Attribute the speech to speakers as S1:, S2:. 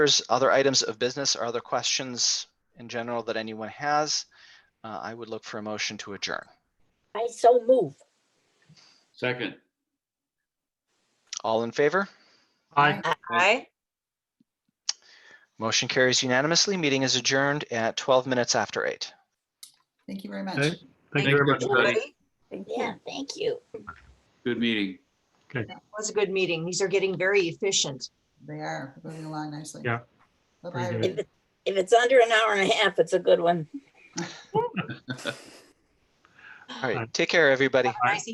S1: There's other items of business or other questions in general that anyone has. Uh, I would look for a motion to adjourn.
S2: I so move.
S3: Second.
S1: All in favor?
S4: Aye.
S5: Aye.
S1: Motion carries unanimously. Meeting is adjourned at 12 minutes after eight.
S4: Thank you very
S6: Okay.
S4: much.
S6: Thank you very much, everybody.
S5: everybody.
S4: Thank
S2: Yeah, thank you.
S3: Good meeting.
S5: That was a good meeting. These are getting very efficient.
S4: They are moving along nicely.
S6: Yeah.
S4: Bye-bye,
S6: Pretty good.
S4: everybody.
S2: If it's under an hour and a half, it's a good one.
S1: All right, take care, everybody.
S5: Nice